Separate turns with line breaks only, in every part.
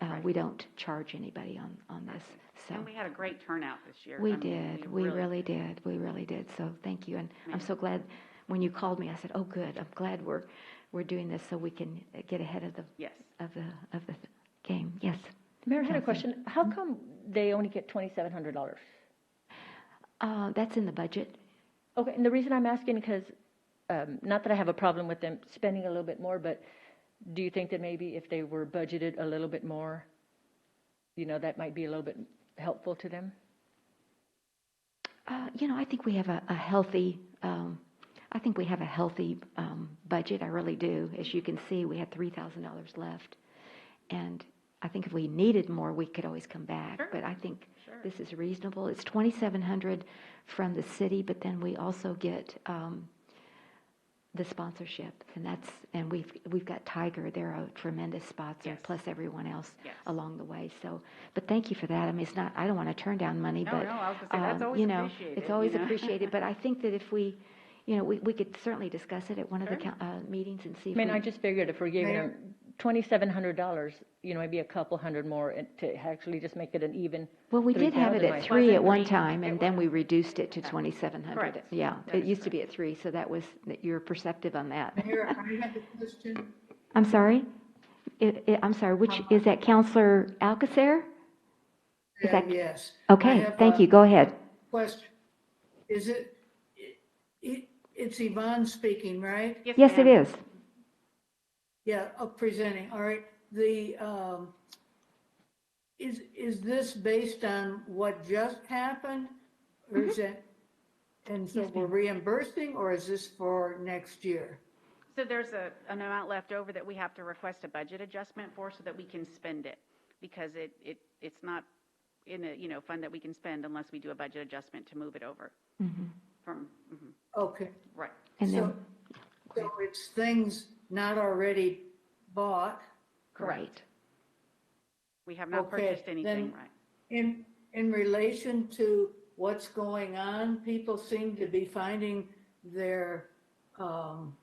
Uh, we don't charge anybody on, on this, so.
And we had a great turnout this year. I
We
mean,
did, we really did, we really did, so thank you, and I'm so glad, when you called me, I said, oh, good, I'm glad we're, we're doing this so we can uh, get ahead of the,
Yes.
of the, of the game, yes.
Mayor, I had a question. How
Mm-hmm.
come they only get twenty-seven hundred dollars?
Uh, that's in the budget,
Okay, and the reason I'm asking, because, um, not that I have a problem with them spending a little bit more, but do you think that maybe if they were budgeted a little bit more, you know, that might be a little bit helpful to them?
Uh, you know, I think we have a, a healthy, um, I think we have a healthy um, budget. I really do. As you can see, we had three thousand dollars left, and I think if we needed more, we could always come back. But I think
Sure.
this is reasonable. It's twenty seven hundred from the city, but then we also get um, the sponsorship, and that's and we've we've got Tiger. They're a tremendous sponsor,
Yes.
plus everyone else
Yes.
along the way. So, but thank you for that. I mean, it's not. I don't want to turn down money,
Oh, No,
but
no, I was gonna say, that's
um,
always
you know,
appreciated,
It's
you
always
know.
appreciated, but I think that if we, you know, we, we could certainly discuss it at one of the
Sure.
coun- uh, meetings and see
I
if
mean,
we-
I just figured if we're giving
Mayor?
them twenty-seven hundred dollars, you know, maybe a couple hundred more and to actually just make it an even.
Well, we did have it
3,000,
at
I-
three at
Wasn't
one
three-
time,
it
and then we reduced it to twenty-seven hundred.
Correct.
Yeah,
That
it
is
used to be at three, so that was, that you're perceptive on that.
Mayor, I had a question.
I'm sorry? It, it, I'm sorry, which, is that Counselor Alcasair? Is
Yeah,
that-
Yes. I
Okay,
have
thank
a
you, go ahead.
Question. Is it, it- it, it's Yvonne speaking, right?
Yes, it
ma'am.
is.
Yeah, uh, presenting, all right. The, um, is, is this based on what just happened? Or is
Mm-hmm.
it, and so we're reimbursing, or is this for next year?
So there's a, an amount left over that we have to request a budget adjustment for so that we can spend it. Because it, it, it's not in a, you know, fund that we can spend unless we do a budget adjustment to move it over. From, mhm,
Okay.
right.
Mm-hmm. And then,
So, so it's things not already bought.
right.
We have not
Okay,
purchased anything,
then-
right?
In, in relation to what's going on, people seem to be finding their um,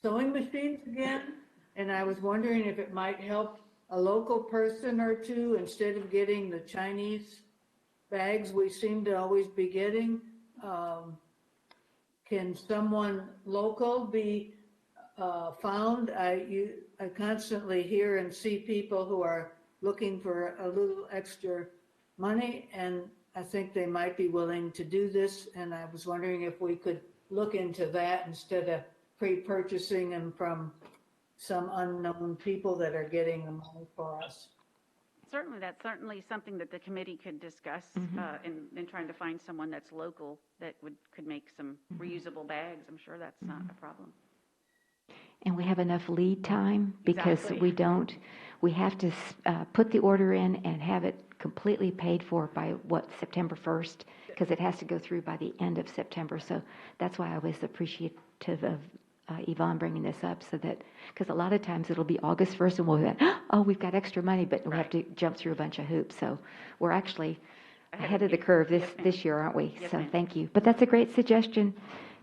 sewing machines again. And I was wondering if it might help a local person or two instead of getting the Chinese bags we seem to always be getting. Um, Can someone local be uh, found. I, you, I constantly hear and see people who are looking for a little extra money, and I think they might be willing to do this. And I was wondering if we could look into that instead of pre-purchasing them from some unknown people that are getting the money for us.
Certainly, that's certainly something that the committee could discuss
Mm-hmm.
uh, in, in trying to find someone that's local that would, could make some
Mm-hmm.
reusable bags. I'm sure that's not a problem.
And we have enough lead time because
Exactly.
we don't, we have to s- uh, put the order in and have it completely paid for by what, September 1st? Because it has to go through by the end of September. So that's why I was appreciative of uh, Yvonne bringing this up so that, because a lot of times it'll be August 1st and we'll be like, oh, we've got extra money, but we have to jump through a bunch of hoops. So we're actually ahead of the curve this,
Yes, ma'am.
this year, aren't we?
Yes,
So
ma'am.
thank you. But that's a great suggestion,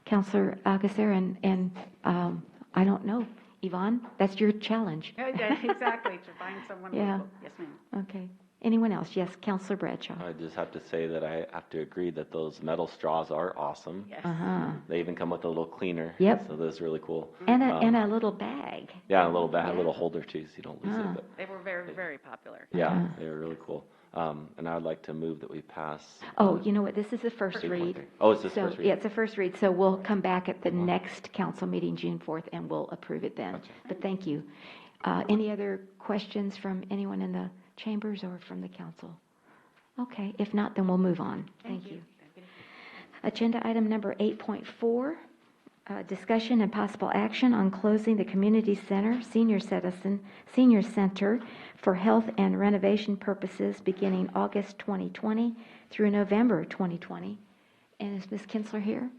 Counselor Alcasair, and, and um, I don't know, Yvonne, that's your challenge.
Yeah, yeah, Exactly, to find someone
Yeah.
local. Yes, ma'am.
Okay. Anyone else? Yes, Counselor Bradshaw.
I just have to say that I have to agree that those metal straws are awesome.
Yes.
Uh-huh.
They even come with a little cleaner.
Yep.
So that's really cool.
And a, and
Um,
a little bag.
Yeah, a little bag,
Yeah.
a little holder too, so you don't lose
Ah.
it. But
They were very, very popular.
yeah, they were really cool. Um, and I would like to move that we pass.
Oh, you know what? This is the first
Three point
read.
three. Oh, it's this
So,
first read? Uh-huh.
Yeah, it's a first read, so we'll come back at the next council meeting, June 4th, and we'll approve it then. But thank you. Uh, Any other questions from anyone in the chambers or from the council? Okay, if not, then we'll move on. Thank you. Agenda item number 8.4, uh, discussion and possible action on closing the community center, senior citizen, senior center for health and renovation purposes beginning August 2020 through November 2020. And is Ms. Kinsler here?